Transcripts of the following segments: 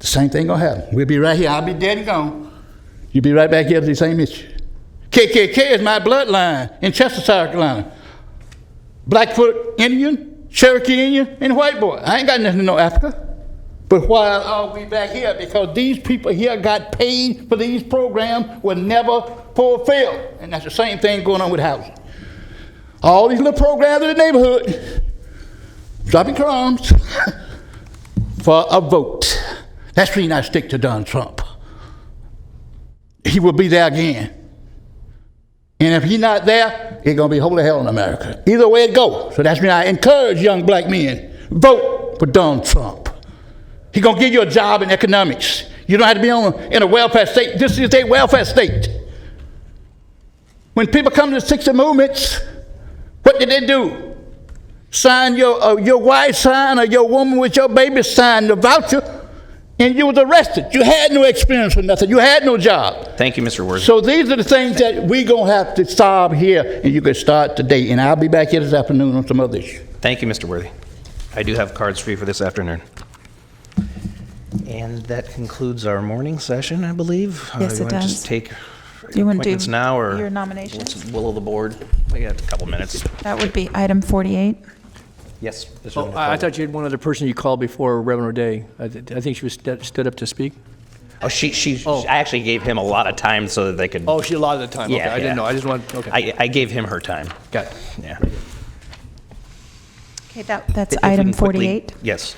same thing gonna happen. We'll be right here. I'll be dead and gone. You'll be right back here to the same issue. KKK is my bloodline in Chester, South Carolina. Blackfoot Indian, Cherokee Indian, and white boy. I ain't got nothing to no Africa. But why are we back here? Because these people here got paid for these programs were never fulfilled. And that's the same thing going on with housing. All these little programs in the neighborhood, dropping crumbs for a vote. That's the reason I stick to Donald Trump. He will be there again. And if he's not there, it's gonna be holy hell in America. Either way it goes. So that's why I encourage young black men, vote for Donald Trump. He's gonna give you a job in economics. You don't have to be on in a welfare state. This is a welfare state. When people come to the 60 movements, what did they do? Sign your uh, your wife sign or your woman with your baby sign the voucher, and you was arrested. You had no experience or nothing. You had no job. Thank you, Mr. Worthy. So these are the things that we gonna have to solve here, and you can start today. And I'll be back here this afternoon on some other issue. Thank you, Mr. Worthy. I do have cards for you for this afternoon. And that concludes our morning session, I believe. Uh, Yes, you it wanna does. Just take Do you wanna do appointments now, or? your nominations? what's the Will of the board? We got a couple minutes. That would be item 48. Yes. Mr. Oh, I I thought you had one other person you called before Reverend O'Day. I th- I think she was st- stood up to speak. Oh, she, she, I actually gave him a lot of time so that they could. Oh, she allotted the time. Okay, Yeah, I didn't yeah. know. I just wanted, okay. I, I gave him her time. Got it. Yeah. Okay, that, that's If we item can quickly- 48. Yes.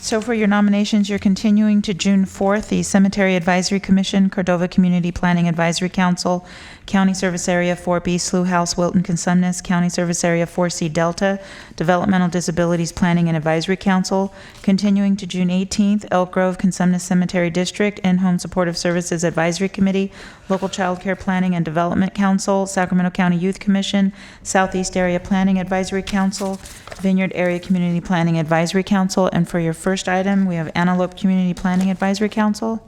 So for your nominations, you're continuing to June 4th, the Cemetery Advisory Commission, Cordova Community Planning Advisory Council, County Service Area 4B, Slough House, Wilton, Consumnes, County Service Area 4C Delta, Developmental Disabilities Planning and Advisory Council, continuing to June 18th, Elk Grove, Consumnes Cemetery District, and Home Supportive Services Advisory Committee, Local Child Care Planning and Development Council, Sacramento County Youth Commission, Southeast Area Planning Advisory Council, Vineyard Area Community Planning Advisory Council, and for your first item, we have Antelope Community Planning Advisory Council.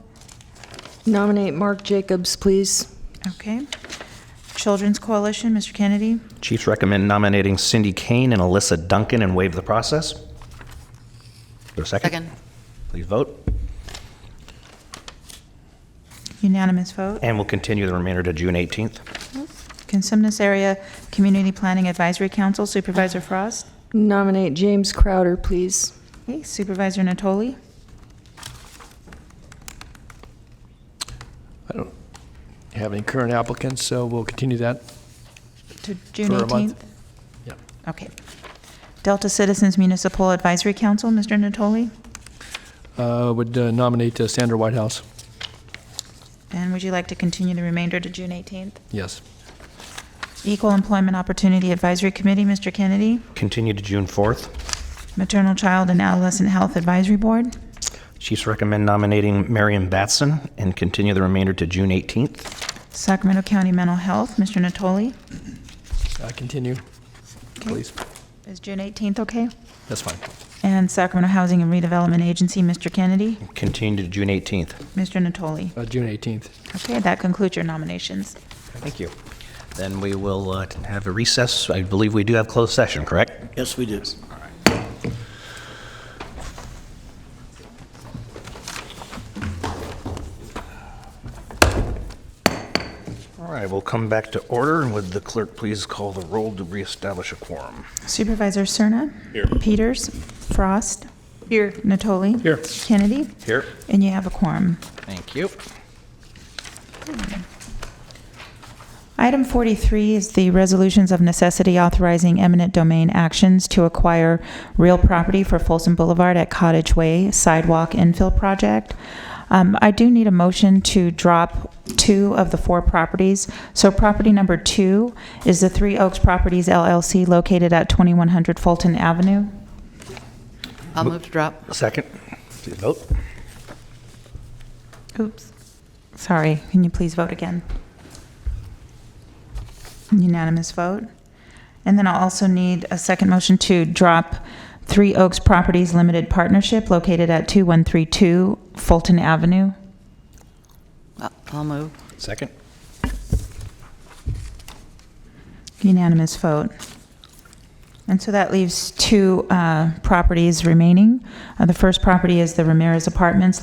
Nominate Mark Jacobs, please. Okay. Children's Coalition, Mr. Kennedy. Chiefs recommend nominating Cindy Kane and Alyssa Duncan and waive the process. Is there a second? Second. Please vote. Unanimous vote. And we'll continue the remainder to June 18th. Consumnes Area Community Planning Advisory Council, Supervisor Frost. Nominate James Crowder, please. Okay, Supervisor Natoli. I don't have any current applicants, so we'll continue that. To June For a 18th? month. Yep. Okay. Delta Citizens Municipal Advisory Council, Mr. Natoli. Uh, Would uh, nominate uh, Sandra Whitehouse. And would you like to continue the remainder to June 18th? Yes. Equal Employment Opportunity Advisory Committee, Mr. Kennedy. Continue to June 4th. Maternal Child and Adolescent Health Advisory Board. Chiefs recommend nominating Marion Batson and continue the remainder to June 18th. Sacramento County Mental Health, Mr. Natoli. Uh, Continue, please. Is June 18th okay? That's fine. And Sacramento Housing and Redevelopment Agency, Mr. Kennedy. Continue to June 18th. Mr. Natoli. Uh, June 18th. Okay, that concludes your nominations. Thank you. Then we will uh, have a recess. I believe we do have closed session, correct? Yes, we do. All right, we'll come back to order, and would the clerk please call the roll to reestablish a quorum? Supervisor Cerna. Here. Peters. Frost. Here. Natoli. Here. Kennedy. Here. And you have a quorum. Thank you. Item 43 is the resolutions of necessity authorizing eminent domain actions to acquire real property for Folsom Boulevard at Cottage Way Sidewalk Infill Project. Um, I do need a motion to drop two of the four properties. So property number two is the Three Oaks Properties LLC located at 2100 Fulton Avenue. I'll move to drop. Second. Please vote. Oops. Sorry, can you please vote again? Unanimous vote. And then I'll also need a second motion to drop Three Oaks Properties Limited Partnership located at 2132 Fulton Avenue. I'll- I'll move. Second. Unanimous vote. And so that leaves two uh, properties remaining. Uh, The first property is the Ramirez Apartments